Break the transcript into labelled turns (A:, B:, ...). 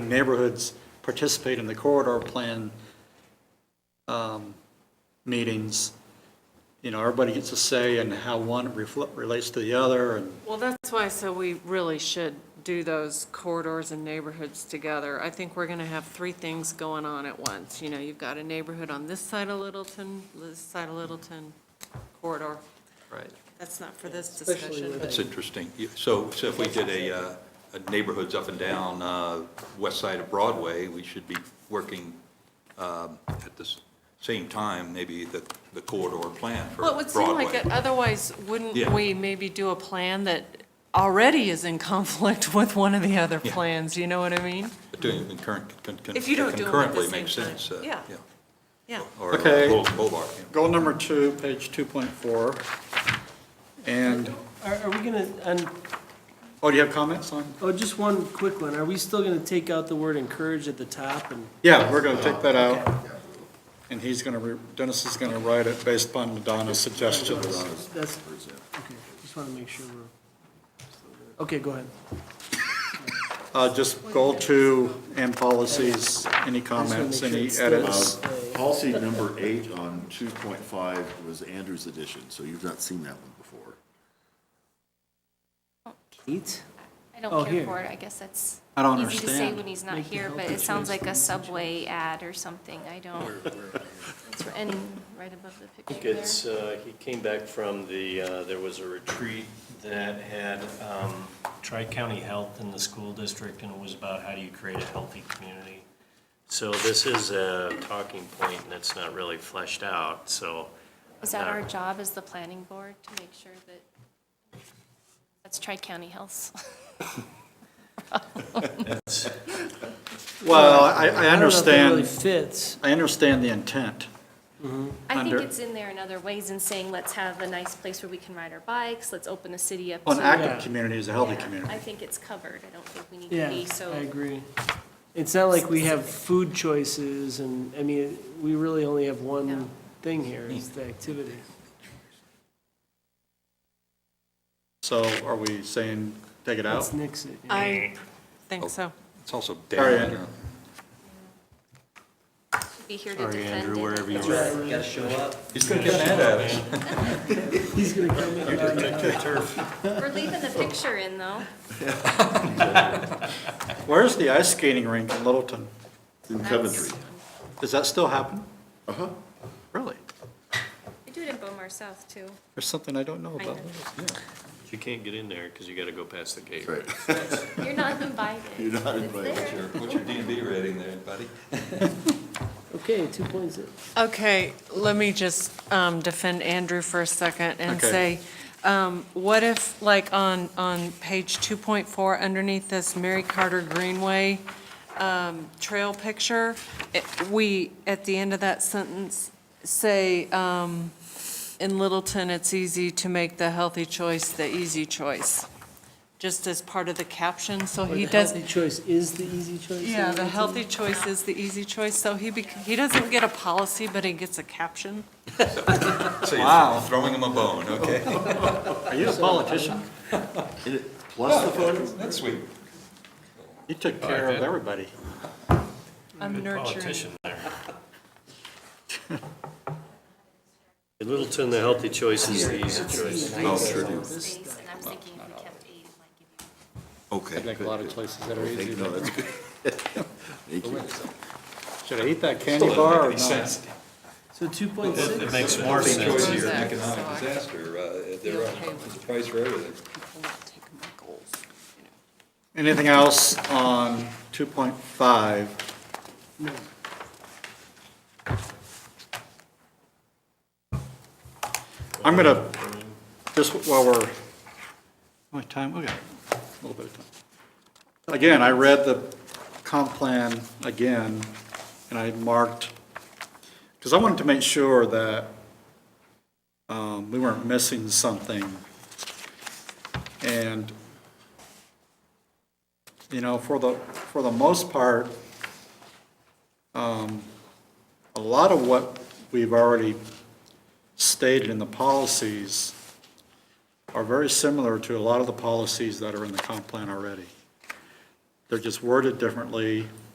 A: neighborhoods participate in the corridor plan um, meetings, you know, everybody gets a say in how one refl- relates to the other, and
B: Well, that's why I said we really should do those corridors and neighborhoods together. I think we're gonna have three things going on at once. You know, you've got a neighborhood on this side of Littleton, this side of Littleton corridor.
C: Right.
B: That's not for this discussion,
C: That's
B: but
C: interesting. You- So, so if we did a, uh, a neighborhoods up and down, uh, west side of Broadway, we should be working, um, at the s- same time, maybe the, the corridor plan for
B: well, it would seem like it,
C: Broadway.
B: otherwise, wouldn't
C: Yeah.
B: we maybe do a plan that already is in conflict with one of the other
C: Yeah.
B: plans, you know what I mean?
C: But Doing it concurrent, con- con-
B: If you don't do 'em at the
C: concurrently
B: same
C: makes
B: time.
C: sense. uh,
B: Yeah. Yeah.
C: Or
A: Okay.
C: Boulevard,
A: goal number two, page 2.4, and,
D: Are, are we gonna, and,
A: oh, do you have comments on?
D: oh, just one quick one, are we still gonna take out the word encourage at the top and?
A: Yeah, we're gonna take that out, and he's gonna, re- Dennis is gonna write it based upon Donna's suggestions.
D: That's, okay, just wanna make sure we're, okay, go ahead.
A: Uh, just goal two and policies, any
D: I just wanna
A: comments,
D: make sure
A: any
D: it's still-
A: edits?
E: Policy number eight on two point five was Andrew's edition, so you've not seen that one before.
D: Eight?
F: I
D: Oh,
F: don't
D: here.
F: care for it, I guess that's
A: I don't
F: easy to say
A: understand.
F: when he's not
D: Make the
F: here,
D: health
F: but it
D: insurance
F: sounds like a
D: thing.
F: Subway ad or something, I don't. It's r- And right above the
G: I think
F: picture there.
G: it's, uh, he came back from the, uh, there was a retreat that had um, Tri-County Health in the school district, and it was about how do you create a healthy community. So this is a talking point, and it's not really fleshed out, so.
F: Is that our job as the planning board to make sure that, that's Tri-County Health.
A: Well, I, I
D: don't know if that really
A: understand,
D: fits.
A: I understand the intent.
F: I think
A: Under-
F: it's in there in other ways in saying, let's have a nice place where we can ride our bikes, let's open the city up to.
A: An active
D: Yeah.
A: community is a healthy
F: Yeah,
A: community.
F: I think it's covered, I don't think we need to
D: Yeah,
F: be so.
D: I agree. It's not like we have food choices and, I mean, we really only have
F: No.
D: one thing here, is the activity.
A: So are we saying take it out?
D: Let's nix it. yeah.
C: mm.
B: I think so.
C: It's also
A: Sorry,
C: down,
A: Andrew.
C: uh,
F: Be here to defend it.
C: he's gonna get mad at us.
D: He's gonna come in.
F: We're leaving the picture in though.
A: Where's the ice skating rink in Littleton?
E: In Coventry,
A: Does that still happen?
E: uh-huh,
A: Really?
F: We do it in Bomar South too.
A: There's something I don't know
F: I
A: about.
F: know.
G: You can't get in there because you got to go past the gate.
E: that's right.
F: You're not invited.
E: You're not
F: It's
E: invited,
F: there.
E: sure.
C: What's your D and B rating there, buddy?
D: Okay, two point six.
B: Okay, let me just um, defend Andrew for a second and
A: Okay.
B: say, um, what if, like, on, on page 2.4, underneath this Mary Carter Greenway um, trail picture, it- we, at the end of that sentence, say, um, in Littleton, it's easy to make the healthy choice the easy choice, just as part of the caption, so he does.
D: The healthy choice is the easy choice.
B: Yeah,
D: in
B: the
D: Littleton?
B: healthy choice is the easy choice, so he, bec- he doesn't get a policy, but he gets a caption.
C: So
A: Wow.
C: you're throwing him a bone, okay?
A: Are you a politician?
E: And it- Plus the photos,
C: That's sweet.
A: You took care of everybody.
B: I'm nurturing.
G: Politician there. In Littleton, the healthy choice is the easy choice.
C: Oh, sure do.
F: Space, and I'm thinking if we kept eight, it might give you.
C: Okay.
A: Like a lot of places that are
E: Thank
A: easy.
E: you, no, that's good. Thank you.
A: Should I eat that candy
C: Still doesn't
A: bar or
C: make any
A: not?
C: sense.
D: So two point
G: It
D: six,
G: makes more
C: Healthy
G: sense.
C: choice is an
B: Sense.
C: economic disaster, uh, there are, there's a price for everything.
A: Anything else on 2.5? I'm going to, just while we're, how much time, we got a little bit of time. Again, I read the comp plan again, and I marked, because I wanted to make sure that um, we weren't missing something. And you know, for the, for the most part, um, a lot of what we've already stated in the policies are very similar to a lot of the policies that are in the comp plan already. They're just worded differently.